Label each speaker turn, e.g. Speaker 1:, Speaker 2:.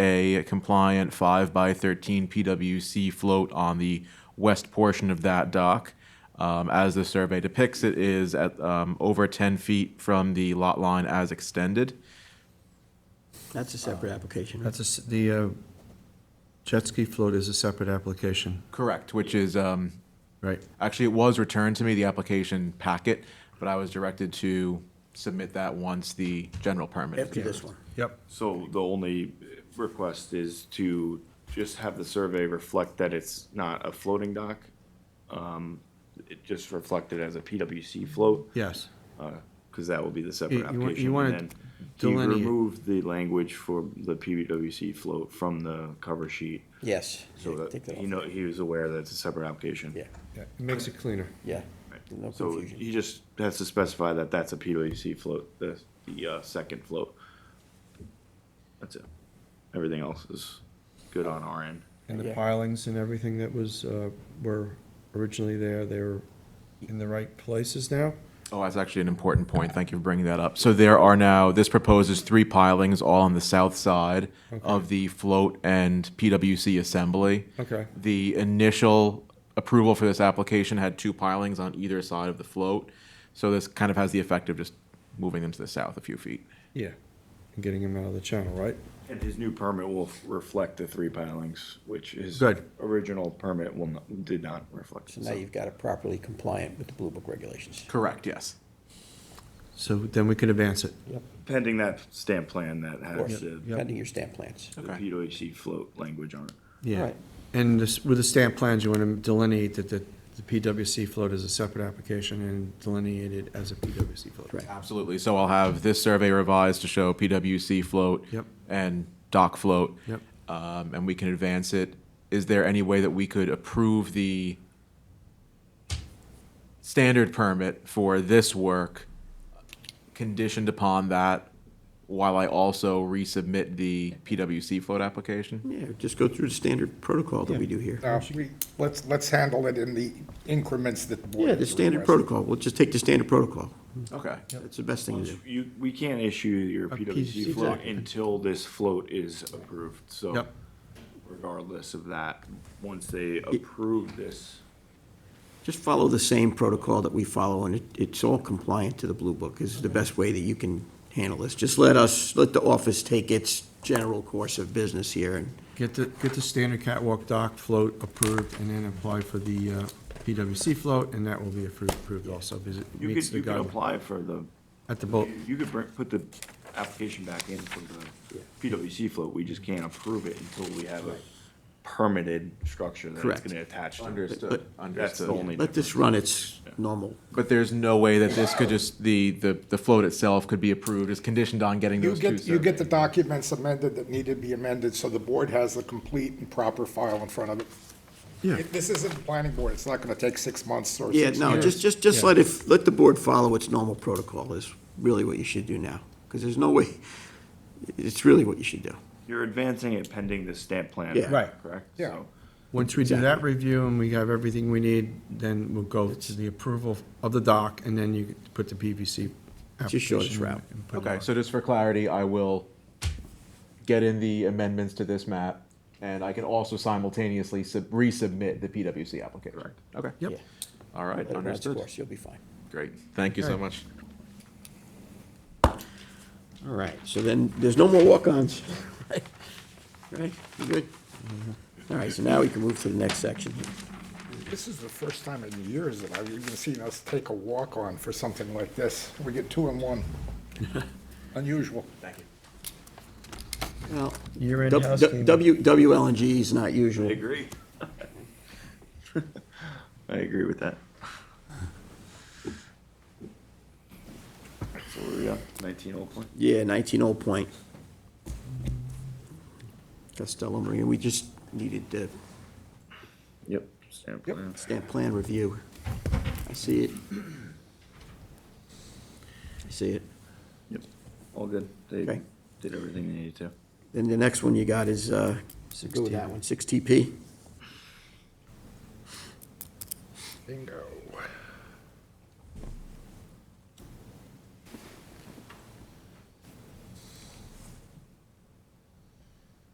Speaker 1: a compliant 5 by 13 PWC float on the west portion of that dock. Um, as the survey depicts, it is at um, over 10 feet from the lot line as extended.
Speaker 2: That's a separate application, right?
Speaker 3: That's a s the uh, jet ski float is a separate application,
Speaker 1: Correct, which is um,
Speaker 3: right?
Speaker 1: actually it was returned to me the application packet, but I was directed to submit that once the general permit. is
Speaker 2: after this
Speaker 1: approved.
Speaker 2: one.
Speaker 3: Yep.
Speaker 4: So the only request is to just have the survey reflect that it's not a floating dock. Um, It just reflected as a PWC float,
Speaker 3: Yes.
Speaker 4: because that will be the
Speaker 3: You-
Speaker 4: separate
Speaker 3: you want- you
Speaker 4: application.
Speaker 3: wanna
Speaker 4: And then He
Speaker 3: delineate-
Speaker 4: removed the language for the PWC float from the cover sheet,
Speaker 2: Yes.
Speaker 4: so that,
Speaker 2: Take that
Speaker 4: he
Speaker 2: off.
Speaker 4: know, he was aware that it's a separate application.
Speaker 2: Yeah,
Speaker 3: It makes it cleaner.
Speaker 2: yeah.
Speaker 4: Right.
Speaker 2: No
Speaker 4: So
Speaker 2: confusion.
Speaker 4: he just has to specify that that's a PWC float, the, the uh, second float. That's it. Everything else is good on our end.
Speaker 3: And the
Speaker 2: Yeah.
Speaker 3: pilings and everything that was, uh, were originally there, they were in the right places now?
Speaker 1: Oh, that's actually an important point. Thank you for bringing that up. So there are now, this proposes three pilings all on the south side of the float and PWC assembly.
Speaker 3: Okay.
Speaker 1: The initial approval for this application had two pilings on either side of the float. So this kind of has the effect of just moving them to the south a few feet.
Speaker 3: Yeah. And getting them out of the channel, right?
Speaker 4: And his new permit will f- reflect the three pilings, which his
Speaker 3: Good.
Speaker 4: original permit will, not- did not reflect.
Speaker 2: So now you've got it properly compliant with the Blue Book regulations.
Speaker 1: Correct, yes.
Speaker 3: So then we can advance it.
Speaker 2: Yep.
Speaker 4: Pending that stamp plan that
Speaker 2: course.
Speaker 4: has the
Speaker 3: Yep.
Speaker 2: Pending your stamp plans.
Speaker 4: the
Speaker 1: Okay.
Speaker 4: PWC float language on it.
Speaker 3: Yeah.
Speaker 2: Right.
Speaker 3: And this, with the stamp plans, you want to delineate that the, the PWC float is a separate application and delineate it as a PWC float.
Speaker 2: Right.
Speaker 1: Absolutely. So I'll have this survey revised to show PWC float
Speaker 3: Yep.
Speaker 1: and dock float.
Speaker 3: Yep.
Speaker 1: Um, and we can advance it. Is there any way that we could approve the standard permit for this work conditioned upon that while I also resubmit the PWC float application?
Speaker 2: Yeah, just go through the standard protocol that we do here.
Speaker 5: No, Uh, we, let's, let's handle it in the increments that the board.
Speaker 2: Yeah, the
Speaker 5: has
Speaker 2: standard
Speaker 5: requested.
Speaker 2: protocol. We'll just take the standard protocol.
Speaker 1: Okay.
Speaker 2: That's the best thing to do.
Speaker 4: You, we can't issue your
Speaker 3: PWC
Speaker 4: PWC float
Speaker 3: float.
Speaker 4: until this float is approved, so
Speaker 3: Yep.
Speaker 4: regardless of that, once they approve this,
Speaker 2: Just follow the same protocol that we follow, and it, it's all compliant to the Blue Book, is the best way that you can handle this. Just let us, let the office take its general course of business here, and
Speaker 3: Get the, get the standard catwalk dock float approved and then apply for the uh, PWC float and that will be approved, approved also because it
Speaker 4: you
Speaker 3: meets
Speaker 4: could,
Speaker 3: the
Speaker 4: you could
Speaker 3: guideline.
Speaker 4: apply for the,
Speaker 3: At the boat,
Speaker 4: you could bring, put the application back in for the PWC float, we just can't approve it until we have a permitted structure that it's
Speaker 2: Correct.
Speaker 4: gonna attach to.
Speaker 1: Understood,
Speaker 2: But-
Speaker 4: That's the
Speaker 1: understood.
Speaker 4: only
Speaker 2: let
Speaker 4: difference.
Speaker 2: this run its normal.
Speaker 1: But there's no way that this could just, the, the, the float itself could be approved as conditioned on getting
Speaker 5: You
Speaker 1: those two surveys?
Speaker 5: get, you get the documents amended that need to be amended, so the board has the complete and proper file in front of it.
Speaker 3: yeah,
Speaker 5: If This isn't the planning board, it's not gonna take six months or
Speaker 2: Yeah,
Speaker 5: six
Speaker 2: no,
Speaker 5: years.
Speaker 2: just, just, just
Speaker 3: Yeah.
Speaker 2: let it, let the board follow its normal protocol is really what you should do now, because there's no way, it's really what you should do.
Speaker 4: You're advancing it pending the stamp plan.
Speaker 2: Yeah.
Speaker 3: Right.
Speaker 4: Correct?
Speaker 5: Yeah.
Speaker 4: So-
Speaker 3: once we do that review and we have everything we need, then we'll go to the approval of the dock and then you could put the PVC
Speaker 2: the shortest
Speaker 3: application
Speaker 2: route.
Speaker 3: and put it
Speaker 1: Okay,
Speaker 3: on.
Speaker 1: so just for clarity, I will get in the amendments to this map, and I can also simultaneously sub- resubmit the PWC application.
Speaker 4: Correct.
Speaker 1: Okay.
Speaker 2: Yeah.
Speaker 3: Yep,
Speaker 1: All
Speaker 2: Let
Speaker 1: right,
Speaker 2: it run its
Speaker 1: understood.
Speaker 2: course, You'll be fine.
Speaker 1: Great, thank you so
Speaker 3: Alright.
Speaker 1: much.
Speaker 2: All right, so then, there's no more walk-ons. Right, you good? All right, so now we can move to the next section.
Speaker 5: This is the first time in years that I've even seen us take a walk-on for something like this. We get two in one. Unusual. Thank you.
Speaker 2: Well,
Speaker 3: Year-end
Speaker 2: W-
Speaker 3: house
Speaker 2: W-
Speaker 3: cleanup.
Speaker 2: W, WLNG is not
Speaker 4: I
Speaker 2: usual.
Speaker 4: agree. I agree with that. So where we at? Nineteen Old Point?
Speaker 2: Yeah, 19 Old Point. Costello Marine, we just needed the
Speaker 4: Yep. Stamp plan.
Speaker 2: stamp plan review. I see it. I see it.
Speaker 4: Yep. All good. They
Speaker 2: Okay.
Speaker 4: did everything they needed to.
Speaker 2: Then the next one you got is, uh, go with that one, 6TP.
Speaker 5: Bingo.